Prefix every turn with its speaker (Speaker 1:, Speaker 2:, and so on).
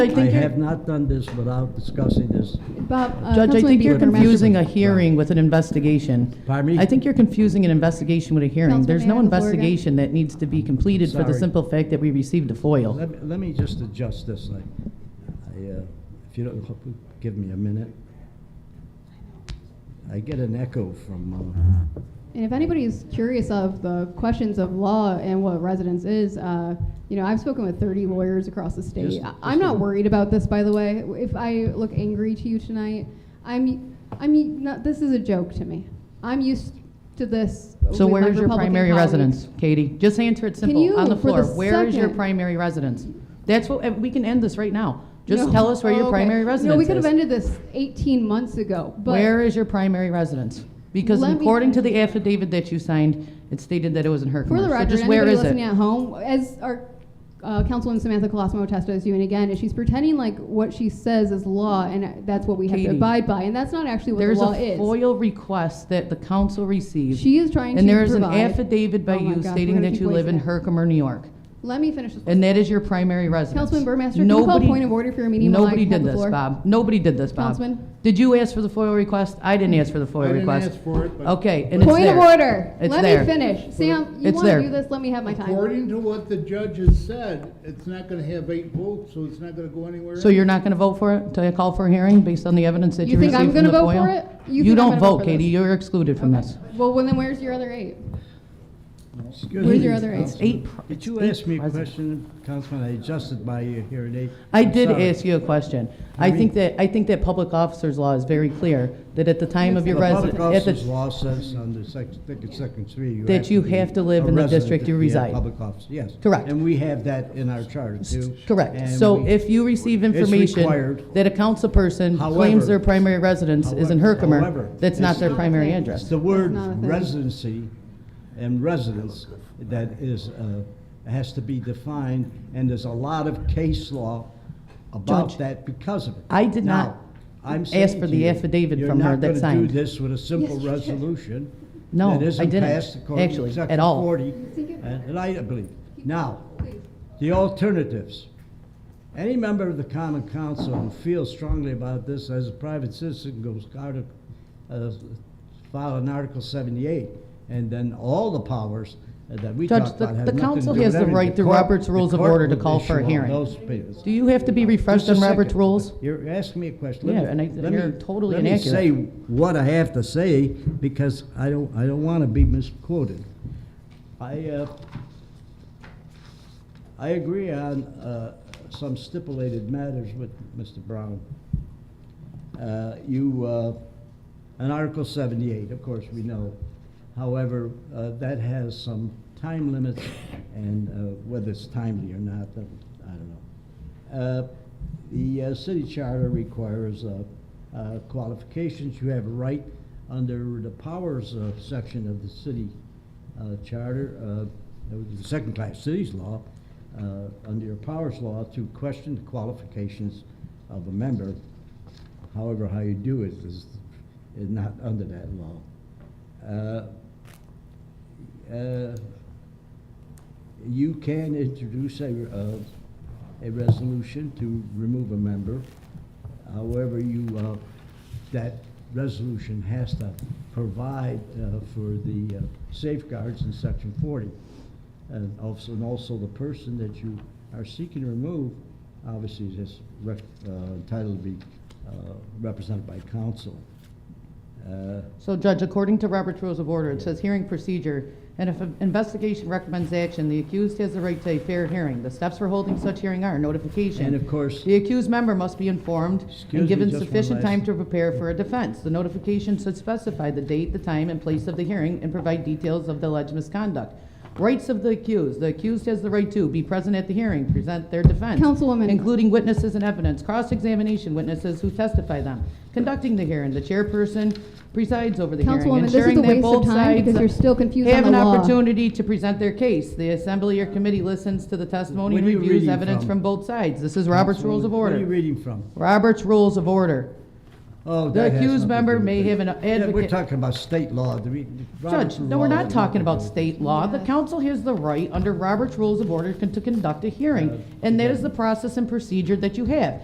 Speaker 1: I
Speaker 2: I
Speaker 1: think
Speaker 2: have
Speaker 1: you're,
Speaker 2: not done this without discussing this.
Speaker 1: Bob, uh,
Speaker 3: Judge, I
Speaker 1: Councilman
Speaker 3: think you're
Speaker 1: Bianco-
Speaker 3: confusing a
Speaker 2: Right.
Speaker 3: hearing with an investigation.
Speaker 2: Pardon me?
Speaker 3: I think you're confusing an investigation with a hearing.
Speaker 1: Councilman,
Speaker 3: There's
Speaker 1: may I
Speaker 3: no
Speaker 1: have the floor again?
Speaker 3: investigation that needs to be completed for the
Speaker 2: Sorry.
Speaker 3: simple fact that we received a FOIL.
Speaker 2: Let me, let me just adjust this thing. I, uh, if you don't, give me a minute. I get an echo from, uh,
Speaker 1: And if anybody is curious of the questions of law and what residence is, uh, you know, I've spoken with 30 lawyers across the state.
Speaker 2: Just-
Speaker 1: I- I'm
Speaker 2: just-
Speaker 1: not worried about this, by the way. If I look angry to you tonight, I'm, I'm, not, this is a joke to me. I'm used to this.
Speaker 3: So
Speaker 1: with my
Speaker 3: where is your
Speaker 1: Republican
Speaker 3: primary
Speaker 1: colleagues.
Speaker 3: residence, Katie? Just answer it simple, on
Speaker 1: you,
Speaker 3: the
Speaker 1: for
Speaker 3: floor.
Speaker 1: the
Speaker 3: Where is your
Speaker 1: second-
Speaker 3: primary residence? That's what, and we can end this right now. Just
Speaker 1: No.
Speaker 3: tell us where
Speaker 1: Oh,
Speaker 3: your
Speaker 1: okay.
Speaker 3: primary residence is.
Speaker 1: No, we could have ended this 18 months ago, but.
Speaker 3: Where is your primary residence? Because
Speaker 1: Let me-
Speaker 3: according to the affidavit that you signed, it stated that it was in Herkimer.
Speaker 1: For the
Speaker 3: So
Speaker 1: record,
Speaker 3: just
Speaker 1: anybody
Speaker 3: where is it?
Speaker 1: listening at home, as our uh, Councilwoman Samantha Colosimo Testo is doing again, is she's pretending like what she says is law, and that's what we have to
Speaker 3: Katie,
Speaker 1: abide by, and that's not actually what
Speaker 3: There's
Speaker 1: the law
Speaker 3: a
Speaker 1: is.
Speaker 3: FOIL request that the council received.
Speaker 1: She is trying to
Speaker 3: And there is an
Speaker 1: provide-
Speaker 3: affidavit by
Speaker 1: Oh my
Speaker 3: you
Speaker 1: gosh, we're
Speaker 3: stating
Speaker 1: gonna
Speaker 3: that
Speaker 1: keep
Speaker 3: you live in
Speaker 1: wasting it.
Speaker 3: Herkimer, New York.
Speaker 1: Let me finish this.
Speaker 3: And that is your primary residence.
Speaker 1: Councilman Burmaster, can you call
Speaker 3: Nobody-
Speaker 1: point of order for your meeting while I
Speaker 3: Nobody
Speaker 1: hold
Speaker 3: did
Speaker 1: the
Speaker 3: this,
Speaker 1: floor?
Speaker 3: Bob. Nobody did this, Bob.
Speaker 1: Councilman?
Speaker 3: Did you ask for the FOIL request? I didn't ask for the FOIL
Speaker 4: I didn't
Speaker 3: Oh, request.
Speaker 4: ask for it, but-
Speaker 3: Okay, and it's
Speaker 1: Point of
Speaker 3: there.
Speaker 1: order.
Speaker 3: It's
Speaker 1: Let
Speaker 3: there.
Speaker 1: me finish. Sam, you
Speaker 3: It's
Speaker 1: want
Speaker 3: there.
Speaker 1: to do this? Let me have my time.
Speaker 4: According to what the judge has said, it's not gonna have eight votes, so it's not gonna go anywhere.
Speaker 3: So you're not going to vote for it until I call for a hearing based on the evidence that
Speaker 1: You
Speaker 3: you
Speaker 1: think
Speaker 3: received
Speaker 1: I'm
Speaker 3: from the FOIL?
Speaker 1: gonna vote for it? You
Speaker 3: You
Speaker 1: think I'm
Speaker 3: don't
Speaker 1: gonna vote
Speaker 3: vote,
Speaker 1: for this?
Speaker 3: Katie. You're excluded from
Speaker 1: Okay.
Speaker 3: this.
Speaker 1: Well, well, then where's your other eight?
Speaker 2: excuse me.
Speaker 1: Where's your other eight?
Speaker 3: It's eight pr-
Speaker 2: Did
Speaker 3: it's
Speaker 2: you
Speaker 3: eight
Speaker 2: ask me a
Speaker 3: present.
Speaker 2: question, Councilman? I adjusted my hearing aid.
Speaker 3: I
Speaker 2: I'm
Speaker 3: did
Speaker 2: sorry.
Speaker 3: ask you a question. I
Speaker 2: Pardon
Speaker 3: think
Speaker 2: me?
Speaker 3: that, I think that public officer's law is very clear, that at the time of your residence,
Speaker 2: The public officer's law says under section, I think it's section three.
Speaker 3: That you
Speaker 2: be
Speaker 3: have to live
Speaker 2: a
Speaker 3: in the
Speaker 2: resident
Speaker 3: district you
Speaker 2: to be a
Speaker 3: reside.
Speaker 2: Public officer, yes.
Speaker 3: Correct.
Speaker 2: And we have that in our charter too.
Speaker 3: Correct.
Speaker 2: And
Speaker 3: So
Speaker 2: we-
Speaker 3: if you receive information
Speaker 2: required.
Speaker 3: that a council person claims
Speaker 2: However-
Speaker 3: their primary residence is in
Speaker 2: However-
Speaker 3: Herkimer,
Speaker 2: however,
Speaker 3: that's not
Speaker 2: it's-
Speaker 3: their primary
Speaker 2: It's
Speaker 3: address.
Speaker 2: the word
Speaker 1: not a thing.
Speaker 2: residency and residence that is, uh, has to be defined, and there's a lot of case law about
Speaker 3: Judge,
Speaker 2: that because of it.
Speaker 3: I did
Speaker 2: Now,
Speaker 3: not
Speaker 2: I'm
Speaker 3: ask
Speaker 2: saying
Speaker 3: for
Speaker 2: to
Speaker 3: the
Speaker 2: you,
Speaker 3: affidavit from her that
Speaker 2: You're not gonna
Speaker 3: signed.
Speaker 2: do this with a simple
Speaker 1: Yes, you did.
Speaker 2: resolution.
Speaker 3: No,
Speaker 2: that isn't
Speaker 3: I didn't,
Speaker 2: passed according to
Speaker 3: actually, at
Speaker 2: Section
Speaker 3: all.
Speaker 2: 40,
Speaker 1: Think it-
Speaker 2: And and I believe. Now,
Speaker 1: Please.
Speaker 2: the alternatives. Any member of the common council who feels strongly about this as a private citizen goes out of, uh, file an Article seventy-eight, and then all the powers that we
Speaker 3: Judge,
Speaker 2: talked
Speaker 3: the-
Speaker 2: about have
Speaker 3: the
Speaker 2: nothing to
Speaker 3: council
Speaker 2: do with
Speaker 3: has the
Speaker 2: anything.
Speaker 3: right through
Speaker 2: court-
Speaker 3: Robert's
Speaker 2: the
Speaker 3: Rules of
Speaker 2: court
Speaker 3: Order to
Speaker 2: will
Speaker 3: call for a
Speaker 2: issue all
Speaker 3: hearing.
Speaker 2: those papers.
Speaker 3: Do you have to be refreshed
Speaker 2: Just
Speaker 3: on
Speaker 2: a
Speaker 3: Robert's
Speaker 2: second.
Speaker 3: rules?
Speaker 2: You're asking me a question. Let
Speaker 3: Yeah,
Speaker 2: me-
Speaker 3: and I-
Speaker 2: let
Speaker 3: you're
Speaker 2: me-
Speaker 3: totally inaccurate.
Speaker 2: Let me say what I have to say, because I don't, I don't want to be misquoted. I, uh, I agree on uh, some stipulated matters with Mr. Brown. Uh, You, uh, on Article 78, of course, we know. However, uh, that has some time limits, and uh, whether it's timely or not, I don't know. Uh, The uh, city charter requires uh, uh, qualifications. You have a right under the powers uh, section of the city uh, charter, uh, that was the second-class cities law, uh, under your powers law, to question the qualifications of a member. However, how you do it is, is not under that law. Uh, uh, You can introduce a, uh, a resolution to remove a member. However, you, uh, that resolution has to provide uh, for the uh, safeguards in section forty. And also, and also the person that you are seeking to remove, obviously is rec- uh, entitled to be uh, represented by counsel. Uh,
Speaker 3: So Judge, according to Robert's Rules of Order, it says hearing procedure, and if an investigation recommends action, the accused has the right to a fair hearing. The steps for holding such hearing are notification.
Speaker 2: And of course-
Speaker 3: The accused member must be informed
Speaker 2: Excuse
Speaker 3: and
Speaker 2: me,
Speaker 3: given
Speaker 2: just one
Speaker 3: sufficient
Speaker 2: last-
Speaker 3: time to prepare for a defense. The notification should specify the date, the time, and place of the hearing, and provide details of the alleged misconduct. Rights of the accused. The accused has the right to be present at the hearing, present their defense.
Speaker 1: Councilwoman.
Speaker 3: Including witnesses and evidence, cross-examination witnesses who testify them. Conducting the hearing, the chairperson presides over the hearing.
Speaker 1: Councilwoman, this is
Speaker 3: ensuring
Speaker 1: a
Speaker 3: that
Speaker 1: waste of
Speaker 3: both
Speaker 1: time because
Speaker 3: sides
Speaker 1: you're still confused on the
Speaker 3: Have
Speaker 1: law.
Speaker 3: an opportunity to present their case. The assembly or committee listens to the testimony
Speaker 2: What
Speaker 3: and
Speaker 2: are you
Speaker 3: reviews
Speaker 2: reading
Speaker 3: evidence
Speaker 2: from?
Speaker 3: from both sides. This is Robert's Rules of
Speaker 2: What are you
Speaker 3: Order.
Speaker 2: reading from?
Speaker 3: Robert's Rules of Order.
Speaker 2: Oh,
Speaker 3: The
Speaker 2: that has
Speaker 3: accused
Speaker 2: nothing to
Speaker 3: member
Speaker 2: do with
Speaker 3: may
Speaker 2: it.
Speaker 3: have an
Speaker 2: Yeah, We're
Speaker 3: advocate-
Speaker 2: talking about state law. Do we-
Speaker 3: Judge,
Speaker 2: Robert's
Speaker 3: no, we're
Speaker 2: law
Speaker 3: not
Speaker 2: has
Speaker 3: talking
Speaker 2: nothing to
Speaker 3: about
Speaker 2: do-
Speaker 3: state law. The
Speaker 1: Yeah.
Speaker 3: council has the right, under Robert's Rules of Order, con- to conduct a
Speaker 2: Yeah.
Speaker 3: hearing, and that is the process and procedure that you have.